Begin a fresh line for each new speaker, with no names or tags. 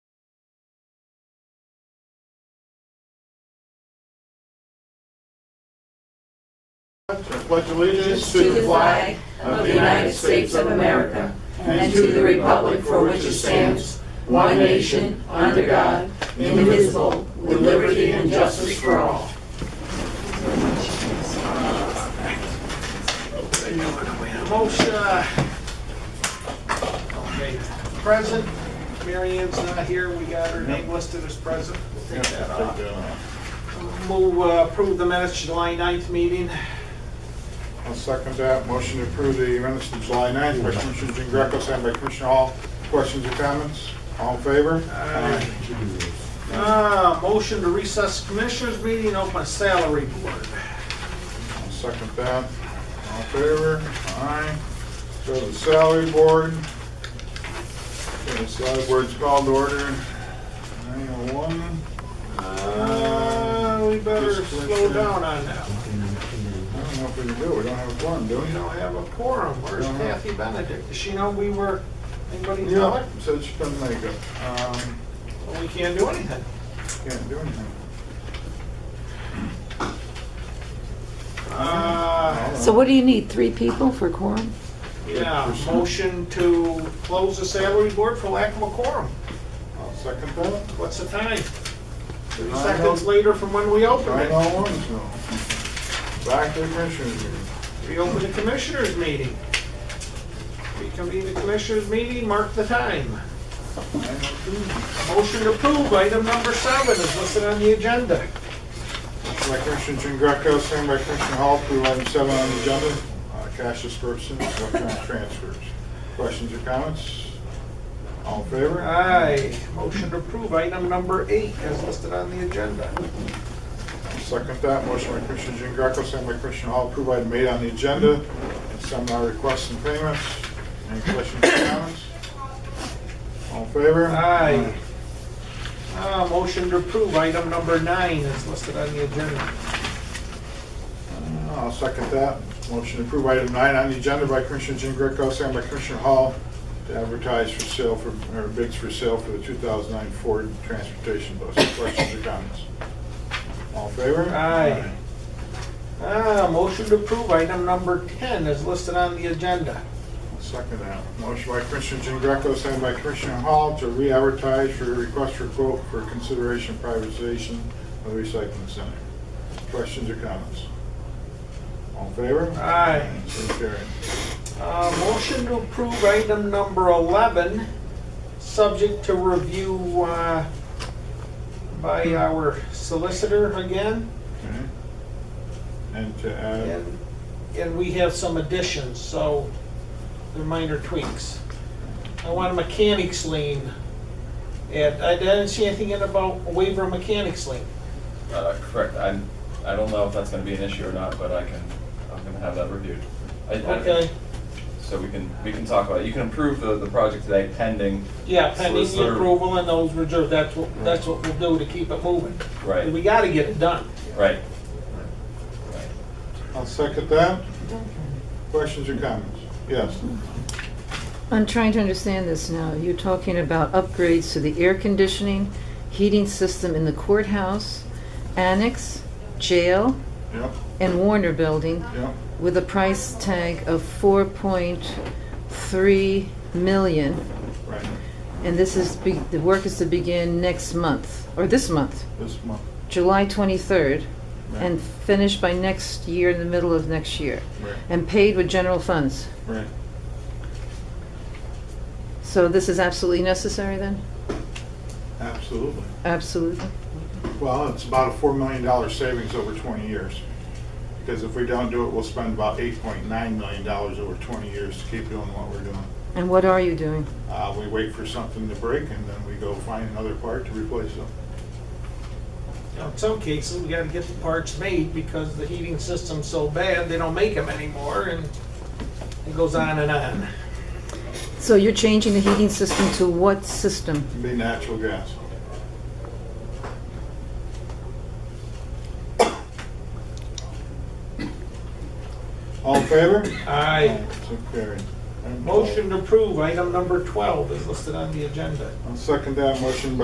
pledge allegiance to the flag of the United States of America and to the republic for which it stands, one nation, under God, indivisible, with liberty and justice for all.
Most, uh, okay, present, Mary Ann's not here, we got her name listed as present. We'll Take that off. Move, uh, approve the minutes, July 9th meeting.
I'll second that. Motion to approve the minutes from July 9th by Commissioner Jean Greco, second by Commissioner Hall. Questions or comments? All in favor?
Aye. Uh, motion to recess commissioners meeting, open salary board.
I'll second that. All in favor? Aye. Go to the salary board. Okay, the salary board's called to order. 901.
Uh, we better slow down on that. one.
I don't know if we can do it. We don't have a forum, do we?
We don't have a quorum, where's
Don't have-
Kathy Benedict? Does she know we were, anybody know
Yeah,
it?
said she couldn't make it. Um,
Well, We can't do anything.
Can't do anything.
Uh,
So what do you need, three people for quorum?
Yeah, motion to close the salary board for lack of a quorum.
I'll second that.
What's the time? Thirty seconds later from when we open
Nine
it.
oh one, so. Back to the commissioners meeting.
Reopen the commissioners' meeting. Reconvene the commissioners' meeting, mark the time.
Nine oh two.
Motion to approve item number seven is listed on the agenda.
Motion by Commissioner Jean Greco, second by Commissioner Hall, to approve item seven on the agenda, uh, cash disbursements, electronic transfers. Questions or comments? All in favor?
Aye, motion to approve item number eight is listed on the agenda.
I'll Second that, motion by Commissioner Jean Greco, second by Commissioner Hall, approve item eight on the agenda, and seminar requests and payments. Any questions or comments? All in favor?
Aye. Uh, motion to approve item number nine is listed on the agenda.
I'll second that. Motion to approve item nine on the agenda by Commissioner Jean Greco, second by Commissioner Hall, to advertise for sale for, or bids for sale for the 2009 Ford Transportation Bus. Questions or comments? All in favor?
Aye. Ah, motion to approve item number 10 is listed on the agenda.
Second that. Motion by Commissioner Jean Greco, second by Commissioner Hall to re-advertise for request for quote for consideration privatization of the recycling center. Questions or comments? All in favor?
Aye.
So carried.
Uh, Motion to approve item number 11, subject to review uh, by our solicitor again.
Okay. Mm-hmm. And to add,
And and we have some additions, so they're minor tweaks. I want a mechanics lien. And I didn't see anything in about a waiver of mechanics lien.
Uh, Correct, I, I don't know if that's gonna be an issue or not, but I can, I'm gonna have that reviewed. I- I-
Okay,
So we can, we can talk about it, you can approve the, the project today pending.
yeah, pending the
solicitor-
approval and those reserved, that's what, that's what we'll do to keep it moving.
Right,
We gotta get it done.
right.
I'll second that. Questions or comments? Yes.
I'm trying to understand this now. You're talking about upgrades to the air conditioning, heating system in the courthouse, annex, jail,
Yep,
and Warner Building
yep.
with a price tag of 4.3 million.
Right.
And this is, be- the work is to begin next month, or this month,
This month.
July 23rd,
Right.
and finished by next year, in the middle of next year,
Right.
and paid with general funds.
Right.
So this is absolutely necessary then?
Absolutely.
Absolutely.
Well, it's about a $4 million savings over 20 years. Because if we don't do it, we'll spend about $8.9 million over 20 years to keep doing what we're doing.
And what are you doing?
Uh, We wait for something to break and then we go find another part to replace it.
Now, in some cases, we gotta get the parts made because the heating system's so bad, they don't make them anymore and it goes on and on.
So you're changing the heating system to what system?
It'd be natural gas. All in favor?
Aye.
So carried. Item twelve.
Motion to approve item number 12 is listed on the agenda.
I'll second that motion by